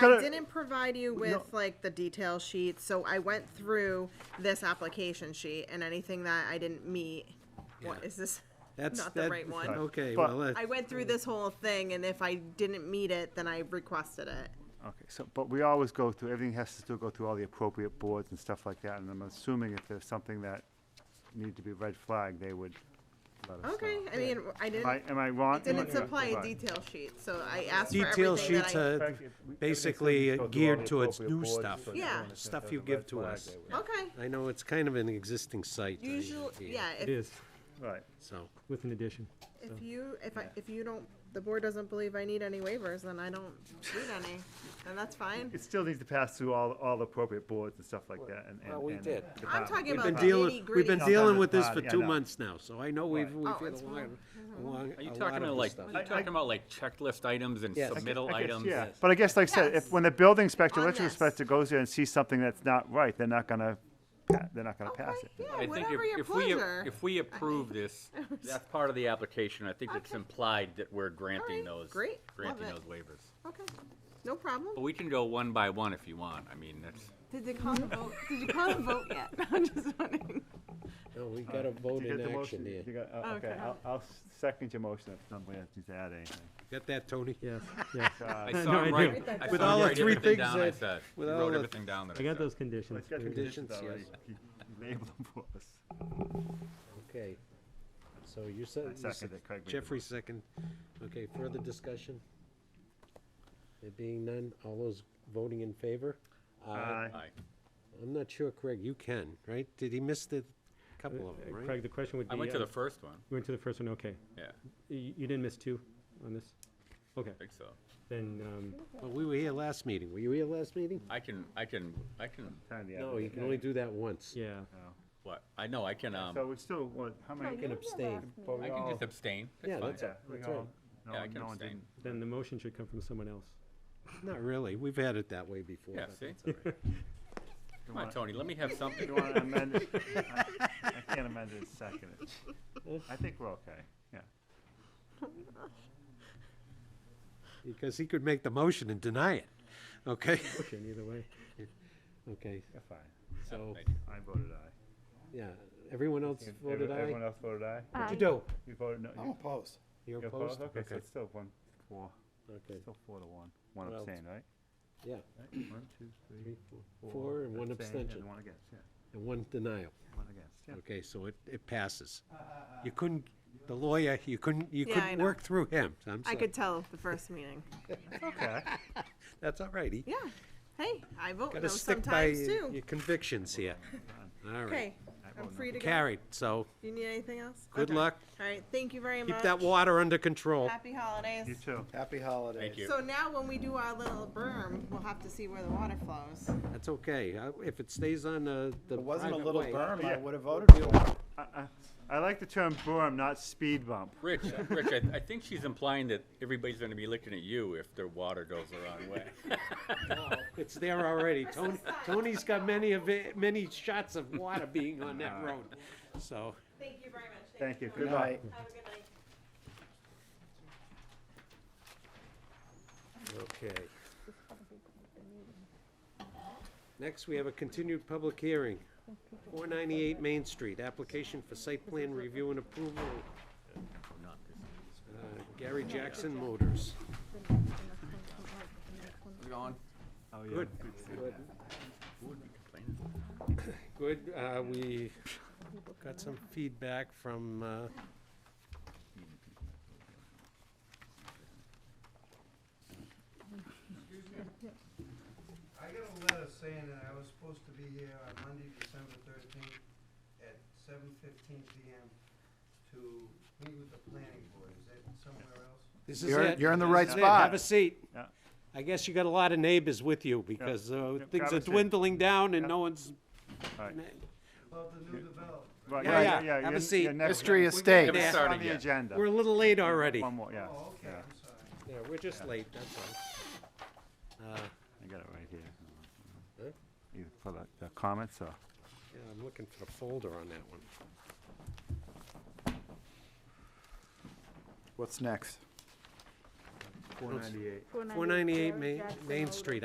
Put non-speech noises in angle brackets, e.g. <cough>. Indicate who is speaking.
Speaker 1: gonna-
Speaker 2: I didn't provide you with like the detail sheet, so I went through this application sheet and anything that I didn't meet. What
Speaker 3: Yeah.
Speaker 2: is this?
Speaker 3: That's
Speaker 2: Not the
Speaker 3: that-
Speaker 2: right one.
Speaker 3: Okay,
Speaker 1: But-
Speaker 3: well, that-
Speaker 2: I went through this whole thing, and if I didn't meet it, then I requested it.
Speaker 1: Okay, so, but we always go through, everything has to still go through all the appropriate boards and stuff like that, and I'm assuming if there's something that needed to be red flagged, they would let us know.
Speaker 2: Okay, I mean, I
Speaker 1: Am I,
Speaker 2: didn't,
Speaker 1: am I wrong?
Speaker 2: it didn't
Speaker 1: Am I-
Speaker 2: supply a
Speaker 1: right.
Speaker 2: detail sheet, so I asked for
Speaker 3: detail
Speaker 2: everything
Speaker 3: sheets
Speaker 2: that I.
Speaker 3: are
Speaker 1: Fact, if we-
Speaker 3: basically
Speaker 1: everything's
Speaker 3: geared
Speaker 1: go through all the
Speaker 3: towards new
Speaker 1: appropriate boards
Speaker 3: stuff.
Speaker 1: and
Speaker 2: Yeah.
Speaker 1: everything.
Speaker 3: Stuff
Speaker 1: If
Speaker 3: you
Speaker 1: there's a
Speaker 3: give to
Speaker 1: red flag,
Speaker 3: us.
Speaker 1: they would-
Speaker 2: Okay,
Speaker 3: I know it's kind of an existing site. uh,
Speaker 2: usually,
Speaker 3: here,
Speaker 2: yeah, if,
Speaker 4: It is,
Speaker 1: Right,
Speaker 3: So,
Speaker 4: with an addition.
Speaker 2: if you, if I, if you don't, the board doesn't believe I need any waivers, then I don't need any, and that's fine.
Speaker 1: it still needs to pass through all, all the appropriate boards and stuff like that, and, and.
Speaker 3: Well, we
Speaker 1: and
Speaker 3: did.
Speaker 2: I'm
Speaker 1: department.
Speaker 2: talking
Speaker 3: we've
Speaker 2: about
Speaker 3: been
Speaker 2: the
Speaker 3: dealing,
Speaker 2: nitty
Speaker 3: we've been
Speaker 2: gritty.
Speaker 3: dealing
Speaker 1: Sometimes
Speaker 3: with this
Speaker 1: it's
Speaker 3: for
Speaker 1: not, yeah,
Speaker 3: two
Speaker 1: no.
Speaker 3: months now, so I know we've, we've
Speaker 2: Oh,
Speaker 3: had a
Speaker 2: it's
Speaker 3: lot,
Speaker 2: fine.
Speaker 3: a long,
Speaker 5: Are
Speaker 3: a
Speaker 5: you
Speaker 3: lot
Speaker 5: talking
Speaker 3: of
Speaker 5: about
Speaker 3: this
Speaker 5: like,
Speaker 3: stuff.
Speaker 5: are you talking about like checklist items and
Speaker 3: Yes. I
Speaker 5: submittal
Speaker 1: I guess,
Speaker 5: items?
Speaker 1: Yeah,
Speaker 5: that-
Speaker 1: but I guess, like I said, if,
Speaker 2: Yes.
Speaker 1: when the building inspector,
Speaker 2: On
Speaker 1: electrical
Speaker 2: this.
Speaker 1: inspector goes there and sees something that's not right, they're not gonna, pa- they're not gonna pass
Speaker 2: Okay,
Speaker 1: it.
Speaker 2: yeah,
Speaker 5: I think
Speaker 2: whatever
Speaker 5: if-
Speaker 2: your
Speaker 5: if we a-
Speaker 2: pleasure.
Speaker 5: If
Speaker 2: <laughs>
Speaker 5: we approve this, that's part of the application. I think it's
Speaker 2: Okay.
Speaker 5: implied that we're granting
Speaker 2: right,
Speaker 5: those,
Speaker 2: great, love
Speaker 5: granting
Speaker 2: it.
Speaker 5: those waivers.
Speaker 2: Okay, no problem.
Speaker 5: But we can go one by one if you want. I mean, that's,
Speaker 6: Did they call the vote? Did you call the vote
Speaker 2: <laughs>
Speaker 6: yet? I'm just wondering.
Speaker 3: No, we got a vote
Speaker 1: Did you
Speaker 3: in
Speaker 1: get the
Speaker 3: action
Speaker 1: motion?
Speaker 3: here.
Speaker 1: You got- oh, Okay,
Speaker 6: Okay.
Speaker 1: I'll, I'll second your motion if somebody needs to add anything.
Speaker 3: Got that, Tony?
Speaker 4: <laughs> Yes, yes.
Speaker 5: I
Speaker 4: No,
Speaker 5: saw
Speaker 4: I
Speaker 5: him right.
Speaker 4: do.
Speaker 5: I
Speaker 3: With
Speaker 5: saw him
Speaker 3: all the
Speaker 5: write
Speaker 3: three
Speaker 5: everything
Speaker 3: things
Speaker 5: down I
Speaker 3: that-
Speaker 5: said. He
Speaker 3: with all
Speaker 5: wrote
Speaker 3: the-
Speaker 5: everything down that
Speaker 4: I
Speaker 5: I
Speaker 4: got
Speaker 5: said.
Speaker 4: those conditions.
Speaker 1: It's got
Speaker 4: for you.
Speaker 1: conditions
Speaker 3: Conditions,
Speaker 1: already. Label them for us.
Speaker 3: Okay. So you said. you
Speaker 1: second
Speaker 3: said-
Speaker 1: it, Craig made the
Speaker 3: Jeffrey second. Okay, further discussion? There being none, all those voting in favor?
Speaker 5: Uh,
Speaker 1: Aye.
Speaker 5: Aye.
Speaker 3: I'm not sure, Craig, you can, right? Did he miss the couple of them,
Speaker 4: Uh,
Speaker 3: right?
Speaker 4: Craig, the question would be.
Speaker 5: I went to
Speaker 4: uh,
Speaker 5: the first one,
Speaker 4: You went to the first one, okay.
Speaker 5: yeah,
Speaker 4: You you didn't miss two on this? Okay,
Speaker 5: I think so.
Speaker 4: then, um,
Speaker 3: Well, we were here last meeting. Were you here last meeting?
Speaker 5: I can, I can, I can,
Speaker 1: Turn the
Speaker 3: No,
Speaker 1: other
Speaker 3: you
Speaker 1: way. Oh.
Speaker 3: can only do that once.
Speaker 4: yeah.
Speaker 5: what, I know, I can,
Speaker 1: So
Speaker 5: um,
Speaker 1: we still, want how many?
Speaker 3: You can abstain.
Speaker 1: but we
Speaker 5: I can
Speaker 1: all-
Speaker 5: just abstain.
Speaker 3: Yeah,
Speaker 5: That's fine.
Speaker 3: that's-
Speaker 1: Yeah, we
Speaker 3: That's
Speaker 1: all-
Speaker 3: right.
Speaker 1: no
Speaker 5: Yeah, I
Speaker 1: one-
Speaker 5: can
Speaker 1: no one
Speaker 5: abstain.
Speaker 1: didn't.
Speaker 4: Then the motion should come from someone else.
Speaker 3: Not really. We've had it that way before.
Speaker 5: Yeah,
Speaker 3: but
Speaker 5: see?
Speaker 3: that's all right. <laughs>
Speaker 5: Come on, Tony, let me have something.
Speaker 1: <laughs> You
Speaker 5: <laughs>
Speaker 1: want to amend it? I I can't amend it,
Speaker 3: <laughs>
Speaker 1: second it. I think we're okay, yeah.
Speaker 3: Because he could make the motion and deny it. Okay? <laughs>
Speaker 4: Motion, either way.
Speaker 3: Okay,
Speaker 1: You're fine.
Speaker 3: so,
Speaker 5: I-
Speaker 1: I voted aye.
Speaker 3: yeah. Everyone else
Speaker 1: Ev-
Speaker 3: voted
Speaker 1: Everyone
Speaker 3: aye?
Speaker 1: else voted aye?
Speaker 3: What'd you do?
Speaker 1: You voted no?
Speaker 7: I'm
Speaker 1: you-
Speaker 7: opposed.
Speaker 3: You're
Speaker 1: you opposed?
Speaker 3: opposed?
Speaker 1: Okay, so it's still one, four,
Speaker 3: Okay,
Speaker 1: still four to one. One
Speaker 3: Well,
Speaker 1: abstain, right?
Speaker 3: yeah.
Speaker 1: Right? One, two, three,
Speaker 3: Three, four, four, and one
Speaker 1: abstain,
Speaker 3: abstention.
Speaker 1: And one against, yeah,
Speaker 3: And one denial.
Speaker 1: one against, yeah.
Speaker 3: Okay, so it, it passes. You couldn't, the lawyer, you couldn't, you
Speaker 2: Yeah, I
Speaker 3: couldn't
Speaker 2: know.
Speaker 3: work through him. I'm
Speaker 2: I
Speaker 3: sorry.
Speaker 2: could tell the first meeting.
Speaker 1: Okay.
Speaker 3: That's all right. He
Speaker 2: Yeah. Hey, I vote
Speaker 3: got
Speaker 2: no
Speaker 3: to stick by
Speaker 2: sometimes
Speaker 3: your
Speaker 2: too.
Speaker 3: your
Speaker 2: <laughs>
Speaker 3: convictions here. All right.
Speaker 2: Okay, I'm free to go.
Speaker 3: Carried, so
Speaker 2: Do you need anything else?
Speaker 3: good
Speaker 2: Okay.
Speaker 3: luck.
Speaker 2: All right, thank you very much.
Speaker 3: Keep that water under control.
Speaker 2: Happy holidays.
Speaker 1: You too.
Speaker 7: Happy holidays.
Speaker 5: Thank you.
Speaker 2: So now when we do our little berm, we'll have to see where the water flows.
Speaker 3: That's okay. I- If it stays on the, the
Speaker 7: If it wasn't a
Speaker 3: private
Speaker 7: little
Speaker 3: way-
Speaker 7: berm, I
Speaker 1: Yeah.
Speaker 7: would have voted for it.
Speaker 1: I- I- I like the term berm, not speed bump.
Speaker 5: Rich, uh, Rich, I, I think she's implying that everybody's gonna be looking at you if their water goes the wrong way.
Speaker 3: It's
Speaker 2: <laughs>
Speaker 3: there already. Tony, Tony's got many of, it- many shots of water being on
Speaker 7: <laughs>
Speaker 3: that road, so.
Speaker 2: Thank you very much.
Speaker 1: Thank you.
Speaker 2: for
Speaker 1: Good
Speaker 2: coming.
Speaker 1: luck.
Speaker 7: Night.
Speaker 2: Have a good night.
Speaker 3: Okay. Next, we have a continued public hearing. 498 Main Street, application for site plan review and approval. Uh, Gary Jackson Motors.
Speaker 1: Oh, yeah.
Speaker 3: Good. Good, uh, we got some feedback from, uh,
Speaker 8: I got a letter saying that I was supposed to be here on Monday, December thirteenth, at seven fifteen PM to meet with the planning board. Is that somewhere else?
Speaker 3: this is
Speaker 7: You're-
Speaker 3: it.
Speaker 7: you're in the
Speaker 3: This
Speaker 7: right
Speaker 3: is it. Have
Speaker 7: spot.
Speaker 3: a seat.
Speaker 1: Yeah.
Speaker 3: I guess you got a lot of neighbors with you because uh,
Speaker 1: Yep,
Speaker 3: things
Speaker 1: have
Speaker 3: are
Speaker 1: a seat.
Speaker 3: dwindling down and
Speaker 1: Yep.
Speaker 3: no one's.
Speaker 1: Alright.
Speaker 8: About the new development.
Speaker 1: Right,
Speaker 3: Yeah, yeah.
Speaker 1: yeah, yeah,
Speaker 3: Have a
Speaker 1: you're-
Speaker 3: seat.
Speaker 1: you're next-
Speaker 7: History
Speaker 1: next
Speaker 7: estate.
Speaker 5: Yeah.
Speaker 1: On
Speaker 5: Starting
Speaker 1: the
Speaker 5: yet.
Speaker 1: agenda.
Speaker 3: We're a little late already.
Speaker 1: One more, yeah.
Speaker 8: Oh, okay,
Speaker 1: yeah.
Speaker 8: I'm sorry.
Speaker 3: Yeah, we're just late, that's all. Uh,
Speaker 1: I got it right here.
Speaker 3: Huh?
Speaker 1: Either for the, the comments or,
Speaker 3: Yeah, I'm looking for the folder on that one.
Speaker 7: What's next?
Speaker 3: Four ninety-eight Main, Main Street,